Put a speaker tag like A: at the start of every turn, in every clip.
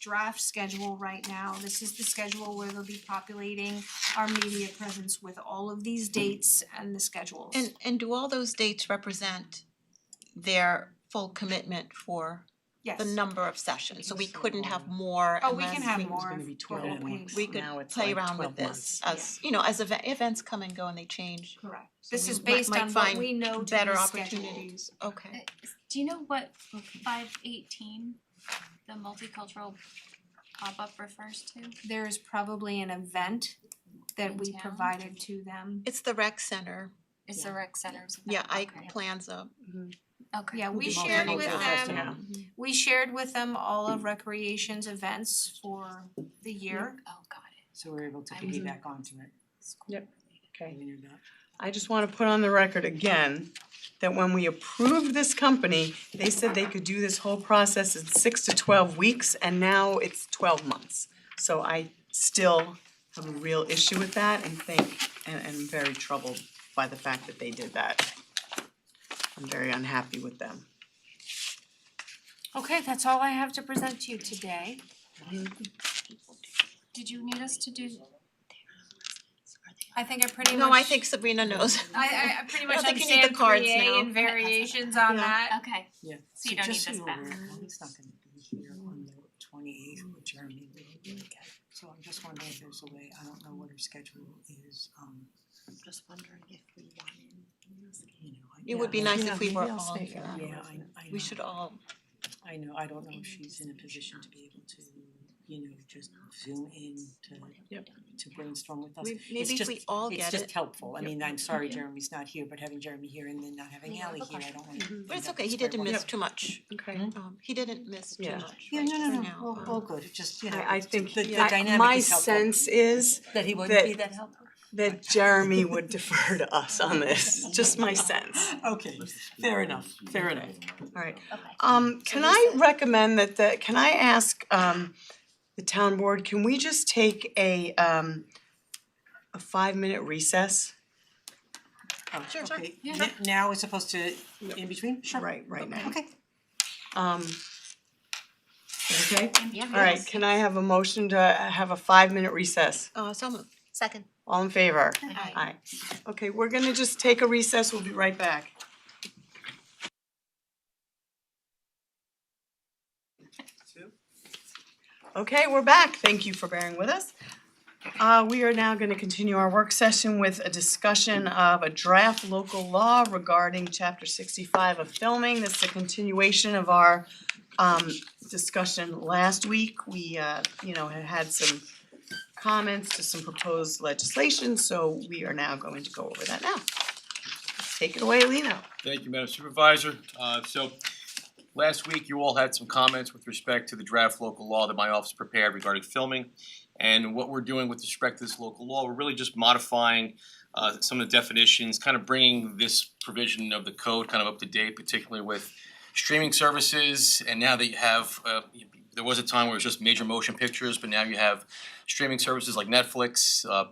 A: draft schedule right now. This is the schedule where they'll be populating our media presence with all of these dates and the schedules.
B: And and do all those dates represent their full commitment for
A: Yes.
B: the number of sessions? So we
C: Yes.
B: couldn't have more
A: Oh, we
B: unless
A: can have
B: we-
C: It was
A: more
C: gonna be
A: of
C: twelve
A: what we-
C: weeks,
B: We could
C: now it's
B: play
C: like
B: around with
C: 12
B: this
C: months.
B: as, you know, as eve- events come and go and they change.
A: Correct.
B: So
A: This
B: we
A: is
B: mi-
A: based
B: might
A: on what
B: find
A: we know to be
B: Better
A: scheduled.
B: opportunities, okay.
D: Do you know what five eighteen, the multicultural pop-up refers to?
A: There is probably an event that
D: In
A: we
D: town?
A: provided to them.
B: It's the rec center,
C: Oh,
D: It's the
C: Yeah.
D: rec centers.
B: yeah, Ike
D: Okay.
B: Planza,
D: Okay.
A: Yeah, we
C: be
A: shared
C: multiple
A: with
C: times
A: them,
C: now.
A: we shared with them all of recreation's events for the year.
D: Oh, got it.
C: So we're able to
D: Mhm.
C: piggyback onto it,
D: School
E: Yep.
D: related.
E: Okay.
C: when you're not.
E: I just wanna put on the record again, that when we approved this company, they said they could do this whole process in six to twelve weeks, and now it's twelve months. So I still have a real issue with that and think, and and I'm very troubled by the fact that they did that. I'm very unhappy with them.
A: Okay, that's all I have to present to you today.
D: Did you need us to do?
A: I think I pretty much.
B: no, I think Sabrina knows.
A: I I I pretty
B: I
A: much
B: don't think you need the
A: understand
B: cards
A: three A
B: now.
A: and variations on
B: Yeah.
A: that.
D: Okay,
C: Yeah.
D: So you don't need
C: just so
D: this
C: you're
D: back.
C: aware, Molly's not gonna be here on the twenty eighth with Jeremy really really can. So I'm just wondering if there's a way, I don't know what her schedule is, um,
F: Just wondering if we wanted.
C: you know, I.
B: It would be
C: yeah,
B: nice if we were all
E: stay
B: here.
C: I- Yeah, I I
B: We
C: know.
B: should all,
C: I know, I don't know if she's in a position to be able to, you know, just zoom in to
E: Yep.
C: to brainstorm with us.
B: we- maybe if
C: just-
B: we all
C: It's
B: get
C: just
B: it, Mm-hmm.
C: helpful, I
E: Yep.
C: mean, I'm sorry
E: Yeah.
C: Jeremy's not here, but having Jeremy here and then not having
D: Yeah, I have
C: Ally
D: a
C: here, I don't wanna.
B: Mm-hmm. but it's okay, he didn't miss too much.
E: Okay.
B: Um, he didn't miss too
E: Yeah.
B: much,
C: Yeah,
B: right,
C: no, no,
B: for
C: no,
B: now.
C: well,
B: Um,
C: well, good, It's just, you know,
E: I I
C: it's-
E: think,
C: the the
E: I-
C: dynamic
E: my
C: is helpful.
E: sense is
C: That he
E: that-
C: wouldn't be that helpful.
E: that Jeremy would defer to us on this, just my sense.
C: Okay, fair enough, fair enough.
E: Alright,
D: okay.
E: um, can I recommend that the, can I ask, um, the town board, can we just take a, um, a five-minute recess?
C: Oh,
B: Sure, sure.
C: okay,
D: Yeah.
C: N- now we're supposed to, in between, sure.
E: Right, right now.
C: Okay,
E: Um, okay,
D: Yeah.
E: alright, can I have a motion to have a five-minute recess?
B: Uh, so moved.
F: Second.
E: All in favor?
D: Aye.
E: Aye. Okay, we're gonna just take a recess, we'll be right back. Okay, we're back, thank you for bearing with us. Uh, we are now gonna continue our work session with a discussion of a draft local law regarding chapter sixty-five of filming. This is a continuation of our, um, discussion last week. We, uh, you know, had had some comments to some proposed legislation, so we are now going to go over that now. Take it away, Lino.
G: Thank you, Madam Supervisor. Uh, so, last week you all had some comments with respect to the draft local law that my office prepared regarding filming. And what we're doing with respect to this local law, we're really just modifying uh some of the definitions, kind of bringing this provision of the code kind of up to date, particularly with streaming services. And now that you have, uh, there was a time where it was just major motion pictures, but now you have streaming services like Netflix, uh,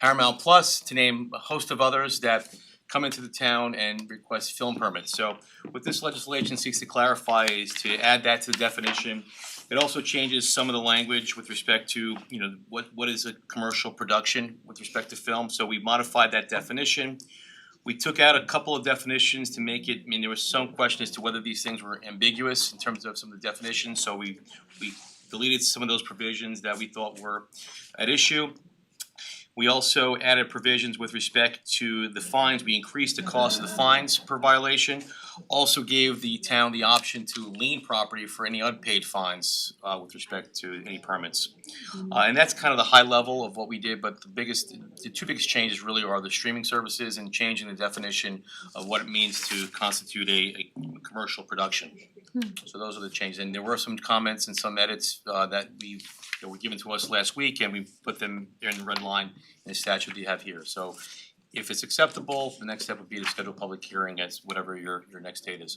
G: Paramount Plus, to name a host of others that come into the town and request film permits. So what this legislation seeks to clarify is to add that to the definition. It also changes some of the language with respect to, you know, what what is a commercial production with respect to film, so we modified that definition. We took out a couple of definitions to make it, I mean, there was some question as to whether these things were ambiguous in terms of some of the definitions, so we we deleted some of those provisions that we thought were at issue. We also added provisions with respect to the fines, we increased the cost of the fines per violation. Also gave the town the option to lien property for any unpaid fines uh with respect to any permits. Uh and that's kind of the high level of what we did, but the biggest, the two biggest changes really are the streaming services and changing the definition of what it means to constitute a a commercial production. So those are the changes, and there were some comments and some edits uh that we that were given to us last week and we put them there in the red line in the statute that you have here. So if it's acceptable, the next step would be to schedule a public hearing as whatever your your next date is.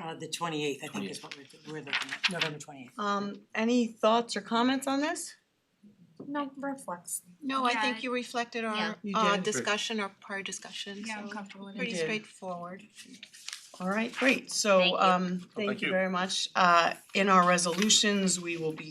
C: uh the twenty eighth, I think is what we're we're looking at, November twenty eighth.
E: Um, any thoughts or comments on this?
F: No, reflex.
B: No, I think
D: Yeah.
B: you reflected
D: Yeah.
B: our
E: You
B: uh
E: did.
B: discussion, our prior discussion,
D: Yeah, I'm
B: so
D: comfortable with it.
B: pretty
E: did.
B: straightforward.
E: All right, great,
D: Thank
E: so
D: you.
E: um, thank
G: Thank
E: you
G: you.
E: very much. Uh, in our resolutions, we will be